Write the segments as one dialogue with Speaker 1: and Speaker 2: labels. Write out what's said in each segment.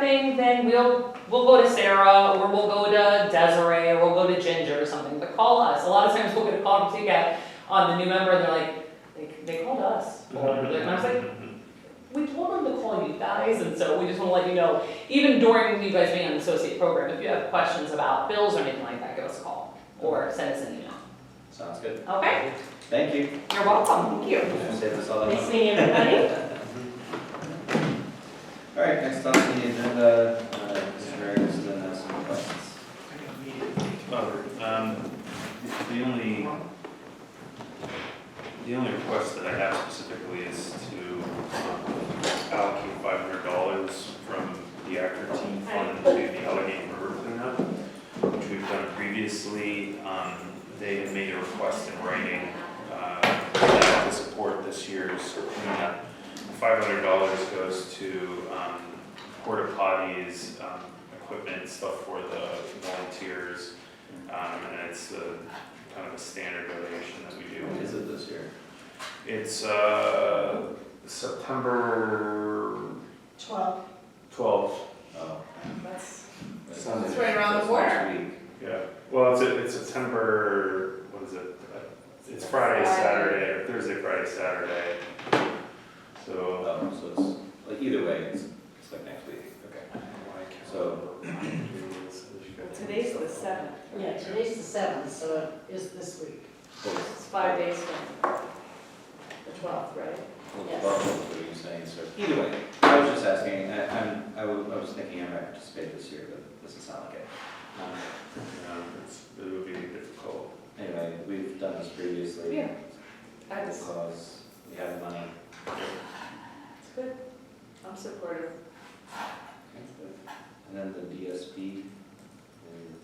Speaker 1: anything, then we'll, we'll go to Sarah, or we'll go to Desiree, or we'll go to Ginger or something, but call us. A lot of times we'll get a call from TCAT on the new member, and they're like, they, they called us. Or, like, And I was like, we told them to call you guys, and so we just wanna let you know, even during you guys being on the associate program, if you have questions about bills or anything like that, give us a call, or send us an email.
Speaker 2: Sounds good.
Speaker 1: Okay,
Speaker 2: Thank you.
Speaker 1: you're welcome, thank you.
Speaker 2: Save us all that
Speaker 1: Nice
Speaker 2: money.
Speaker 1: meeting everybody.
Speaker 2: All right, next on the agenda, uh, Mr. Reyes, and then uh, some questions.
Speaker 3: Robert, um, the only, the only request that I have specifically is to um, allocate five hundred dollars from the Actor Team Fund to the Allegheny River cleanup, which we've done previously. Um, they had made a request in writing, uh, to support this year's cleanup. Five hundred dollars goes to, um, porta potties, um, equipment, stuff for the volunteers, um, and it's a, kind of a standard donation that we do.
Speaker 2: What is it this year?
Speaker 3: It's, uh, September
Speaker 4: Twelve,
Speaker 3: twelfth.
Speaker 2: Oh.
Speaker 4: that's,
Speaker 2: It's
Speaker 3: Sunday.
Speaker 4: It's right around the
Speaker 2: next
Speaker 4: corner.
Speaker 2: week.
Speaker 3: Yeah, well, it's, it's September, what is it? Uh, It's Friday, Saturday, or Thursday, Friday, Saturday. So,
Speaker 2: Oh, so it's, like, either way, it's, it's like next week. Okay. So-
Speaker 4: today's the seventh.
Speaker 5: Yeah, today's the seventh, so it is this week.
Speaker 2: Well, it's-
Speaker 5: It's five days from the twelfth, right?
Speaker 2: Well,
Speaker 5: Yes.
Speaker 2: well, what are you saying, sir? Either way, I was just asking, I, I'm, I was, I was thinking I might participate this year, but doesn't sound like it. Um,
Speaker 3: um, it's, it would be difficult.
Speaker 2: Anyway, we've done this previously.
Speaker 1: Yeah.
Speaker 5: I was,
Speaker 2: Because we have the money.
Speaker 5: it's good. I'm supportive.
Speaker 2: And then the DSP, um,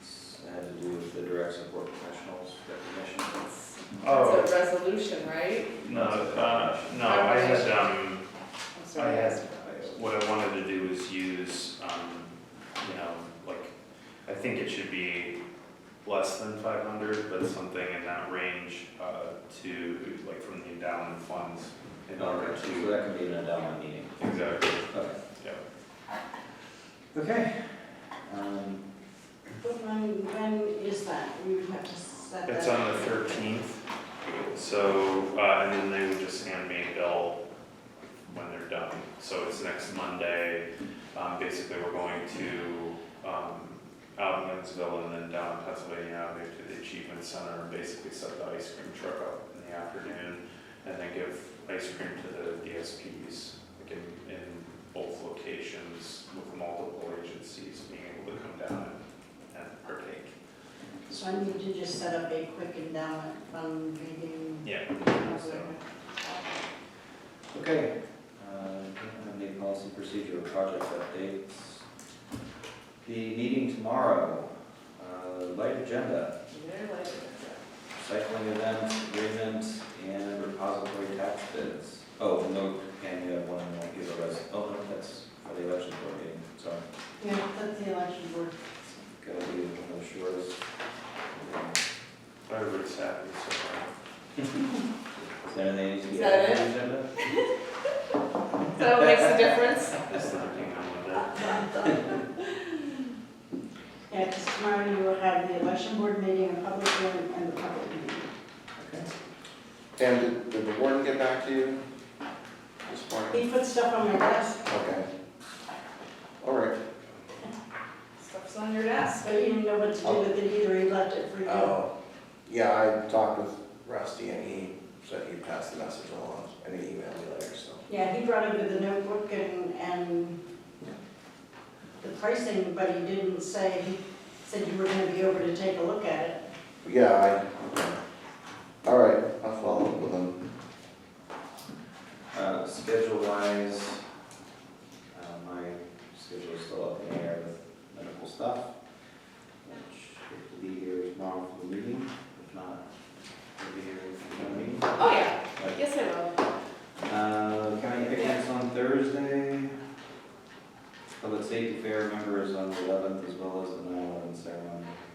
Speaker 2: it's- it had to do with the direct support professionals recognition.
Speaker 3: Oh,
Speaker 4: That's a resolution, right?
Speaker 3: no, uh, no, I had, um,
Speaker 4: I'm
Speaker 3: I
Speaker 4: sorry.
Speaker 3: had, what I wanted to do is use, um, you know, like, I think it should be less than five hundred, but something in that range, uh, to, like, from the endowment funds in order
Speaker 2: So
Speaker 3: to.
Speaker 2: that could be an endowment meeting.
Speaker 3: Exactly,
Speaker 2: Okay.
Speaker 3: yeah.
Speaker 2: Okay. Um,
Speaker 5: But when, when is that? We would have to set that.
Speaker 3: It's on the thirteenth, so, uh, and then they would just hand me a bill when they're done. So it's next Monday, um, basically we're going to, um, out in Linsville and then down in Pennsylvania Avenue to the Achievement Center and basically set the ice cream truck up in the afternoon and then give ice cream to the DSPs, like in, in both locations with multiple agencies being able to come down and, and partake.
Speaker 5: So I need to just set up a quick endowment fund meeting.
Speaker 3: Yeah. So-
Speaker 2: Okay. Uh, Any policy procedure or project updates? The meeting tomorrow, uh, light agenda,
Speaker 5: Very likely.
Speaker 2: cycling event, agreement, and repository tax bids. Oh, no, and you have one, like, give a res, oh, no, that's for the election board meeting, sorry.
Speaker 5: Yeah, that's the election board.
Speaker 2: Gotta be one of yours.
Speaker 3: Everybody's happy so far.
Speaker 2: Is there anything that needs to
Speaker 4: Is
Speaker 2: be
Speaker 4: that
Speaker 2: added to the agenda?
Speaker 4: Is that what makes a difference?
Speaker 3: That's uh, the thing I wanted.
Speaker 5: Yeah, because tomorrow you will have the election board meeting, a public hearing, and the public meeting.
Speaker 6: And did- did the warden get back to you this morning?
Speaker 5: He put stuff on my desk,
Speaker 6: Okay. All right.
Speaker 4: Stuff's on your desk.
Speaker 5: but he didn't know what to
Speaker 3: Oh.
Speaker 5: do with it either, he left it for you.
Speaker 6: Uh, Yeah, I talked with Rusty and he said he'd pass the message along and he emailed me later, so.
Speaker 5: Yeah, he brought over the notebook and, and the pricing, but he didn't say, he said you were gonna be over to take a look at it.
Speaker 6: Yeah, I, all right, I'll follow up with him.
Speaker 2: Uh, schedule wise, uh, my schedule is still up in the air with medical stuff, which should be here tomorrow for the meeting, if not, it'll be here for the meeting.
Speaker 4: Oh, yeah, yes, I will.
Speaker 2: Uh, county picnics on Thursday. Public safety fair members on the eleventh as well as the nine eleven ceremony. Um,